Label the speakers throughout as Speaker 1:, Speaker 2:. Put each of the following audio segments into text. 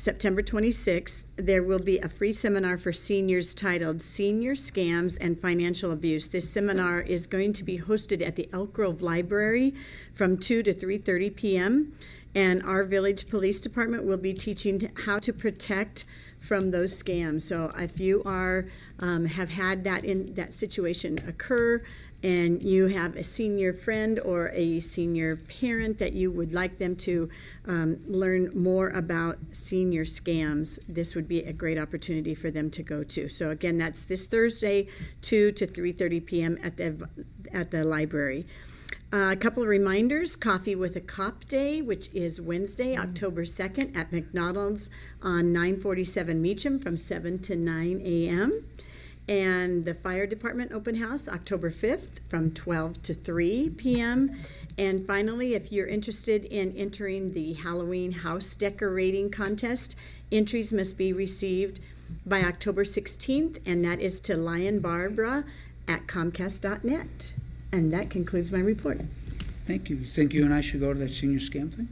Speaker 1: September 26th, there will be a free seminar for seniors titled Senior Scams and Financial Abuse. This seminar is going to be hosted at the Elk Grove Library from 2 to 3:30 p.m. And our Village Police Department will be teaching how to protect from those scams. So if you are, um, have had that in, that situation occur, and you have a senior friend or a senior parent that you would like them to um, learn more about senior scams, this would be a great opportunity for them to go to. So again, that's this Thursday, 2 to 3:30 p.m. at the at the library. Uh, a couple of reminders Coffee with a Cop Day, which is Wednesday, October 2nd at McDonald's on 947 Meacham from 7 to 9 a.m. And the Fire Department Open House, October 5th from 12 to 3 p.m. And finally, if you're interested in entering the Halloween house decorating contest, entries must be received by October 16th, and that is to Lion Barbara at Comcast.net. And that concludes my report.
Speaker 2: Thank you. You Think you and I should go to that senior scam thing?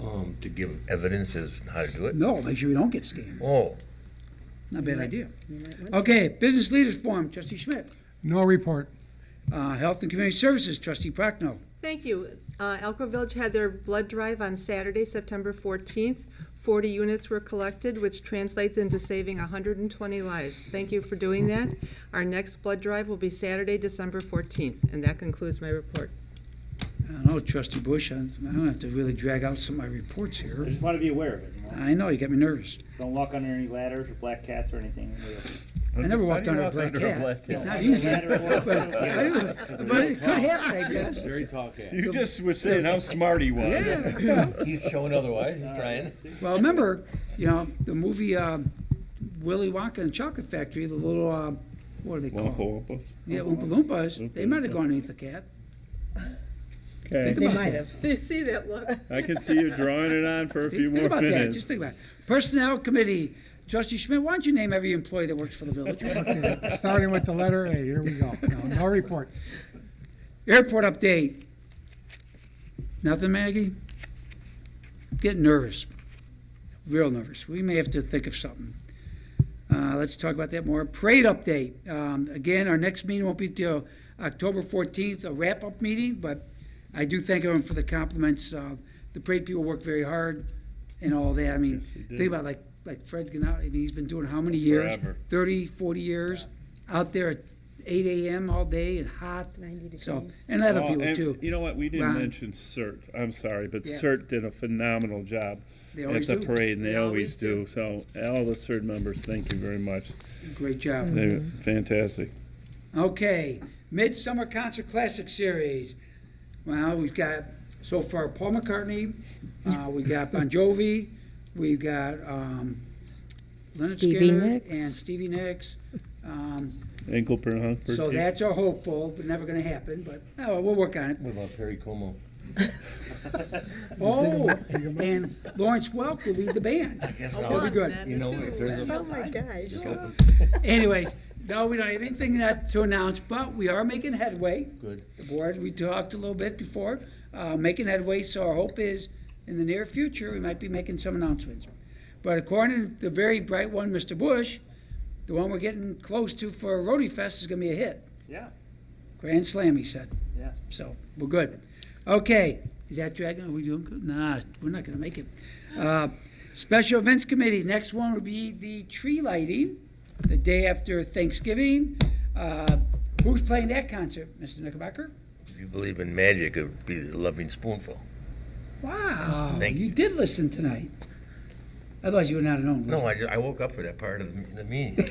Speaker 3: Um, to give evidence as to how to do it?
Speaker 2: No, make sure we don't get scammed.
Speaker 3: Oh,
Speaker 2: Not a bad idea. Okay, business leaders forum, trustee Schmidt.
Speaker 4: No report.
Speaker 2: Uh, Health and Community Services, trustee Prochnow.
Speaker 5: Thank you. Uh, Elko Village had their blood drive on Saturday, September 14th. 40 units were collected, which translates into saving 120 lives. Thank you for doing that. Our next blood drive will be Saturday, December 14th, and that concludes my report.
Speaker 2: I don't know, trustee Bush, I I don't have to really drag out some of my reports
Speaker 6: I
Speaker 2: here.
Speaker 6: just want to be aware of it. You know?
Speaker 2: I know, you got me nervous.
Speaker 6: Don't walk under any ladders or black cats or anything.
Speaker 2: I never walked
Speaker 7: How
Speaker 2: under
Speaker 7: do you
Speaker 2: a
Speaker 7: walk
Speaker 2: black
Speaker 7: under a
Speaker 2: cat.
Speaker 7: black
Speaker 2: It's
Speaker 7: cat?
Speaker 2: not easy.
Speaker 6: Ladder
Speaker 2: But
Speaker 6: walk.
Speaker 2: I don't- but it could happen, I guess.
Speaker 7: Very tall cat. You just were saying how smart he was.
Speaker 3: he's showing otherwise, he's trying.
Speaker 2: Well, remember, you know, the movie um, Willy Wonka and the Chocolate Factory, the little, um, what are they
Speaker 7: Wampa
Speaker 2: called?
Speaker 7: wampas.
Speaker 2: Yeah, Oompa Loompas, they might have gone underneath the cat.
Speaker 7: Okay,
Speaker 2: Think about that.
Speaker 5: Did you see that look?
Speaker 7: I can see you drawing it on for a few
Speaker 2: Think
Speaker 7: more
Speaker 2: about that, just
Speaker 7: minutes.
Speaker 2: think about it. Personnel Committee, trustee Schmidt, why don't you name every employee that works for the village?
Speaker 4: Starting with the letter A, here we go. No, no report.
Speaker 2: Airport update. Nothing, Maggie? Getting nervous, real nervous. We may have to think of something. Uh, let's talk about that more. Parade update. Um, again, our next meeting won't be till October 14th, a wrap-up meeting, but I do thank everyone for the compliments. Uh, the parade people work very hard and all that. I mean,
Speaker 7: Yes, they do.
Speaker 2: think about like, like Fred's going out, I mean, he's been doing how many years?
Speaker 7: Forever.
Speaker 2: 30, 40 years, out there at 8 AM all day and hot.
Speaker 1: 90
Speaker 2: So,
Speaker 1: degrees.
Speaker 2: and other
Speaker 7: Oh,
Speaker 2: people
Speaker 7: and
Speaker 2: too.
Speaker 7: You know what, we didn't
Speaker 2: Ron.
Speaker 7: mention CERT, I'm sorry, but
Speaker 2: Yeah.
Speaker 7: CERT did a phenomenal job
Speaker 2: They
Speaker 7: at
Speaker 2: always
Speaker 7: the
Speaker 2: do.
Speaker 7: parade, and
Speaker 5: They
Speaker 7: they always
Speaker 5: always
Speaker 7: do. So all the CERT members, thank you very much.
Speaker 2: Great job.
Speaker 8: Mm.
Speaker 7: They're fantastic.
Speaker 2: Okay, Midsummer Concert Classic Series. Well, we've got so far Paul McCartney, uh, we got Bon Jovi, we've got um, Leonard
Speaker 8: Stevie
Speaker 2: Skinner
Speaker 8: Nicks.
Speaker 2: and Stevie Nicks. Um,
Speaker 7: Ankle per Humphrey.
Speaker 2: so that's our hopeful, but never going to happen. But oh, we'll work on it.
Speaker 3: What about Perry Como?
Speaker 2: Oh, and Lawrence Welk will lead the band.
Speaker 3: Yes,
Speaker 5: Come
Speaker 3: now,
Speaker 2: be
Speaker 5: on,
Speaker 2: good.
Speaker 5: Ned,
Speaker 3: You know,
Speaker 5: do
Speaker 3: if there's
Speaker 5: it.
Speaker 3: a.
Speaker 1: Oh my gosh.
Speaker 2: Anyways, no, we don't have anything that to announce, but we are making headway.
Speaker 3: Good.
Speaker 2: the board, we talked a little bit before, uh, making headway, so our hope is, in the near future, we might be making some announcements. But according to the very bright one, Mr. Bush, the one we're getting close to for Roadie Fest is gonna be a hit.
Speaker 6: Yeah,
Speaker 2: Grand slam, he said,
Speaker 6: yeah.
Speaker 2: so we're good. Okay, is that dragging, are we doing good? Nah, we're not gonna make it. Uh, Special Events Committee, next one would be the tree lighting, the day after Thanksgiving. Uh, Who's playing that concert, Mr. Knickerbocker?
Speaker 3: If you believe in magic, it would be the loving spoonful.
Speaker 2: Wow,
Speaker 3: Thank
Speaker 2: Oh, you
Speaker 3: you.
Speaker 2: did listen tonight. Otherwise, you would not have known.
Speaker 3: No, I, ju- I woke up for that part of the the meeting.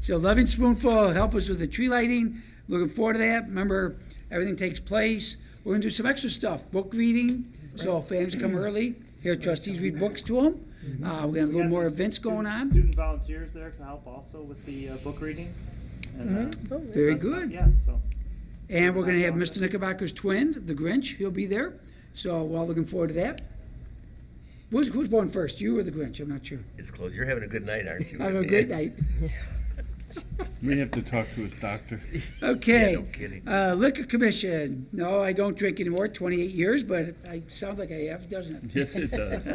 Speaker 2: So, Loving Spoonful will help us with the tree lighting. Looking forward to that. Remember, everything takes place. We're going to do some extra stuff, book reading. So, fans come early. Here, trustees read books to them. Uh, we're going to have a
Speaker 6: We
Speaker 2: little
Speaker 6: got
Speaker 2: more
Speaker 6: some
Speaker 2: events going
Speaker 6: student-
Speaker 2: on.
Speaker 6: Student volunteers there to help also with the uh, book reading. And, uh,
Speaker 2: Mm-hmm. Very
Speaker 6: that's-
Speaker 2: good.
Speaker 6: Yeah, so.
Speaker 2: And we're going to have Mr. Knickerbocker's twin, the Grinch. He'll be there. So, we're all looking forward to that. Who's, who's born first, you or the Grinch? I'm not sure.
Speaker 3: Eh, It's close. You're having a good night, aren't you?
Speaker 2: Have a great night.
Speaker 7: We have to talk to his doctor.
Speaker 2: Okay.
Speaker 3: Yeah, no kidding.
Speaker 2: Uh, Liquor Commission. No, I don't drink anymore, 28 years, but I sound like I have, doesn't it?
Speaker 7: Yes, it does.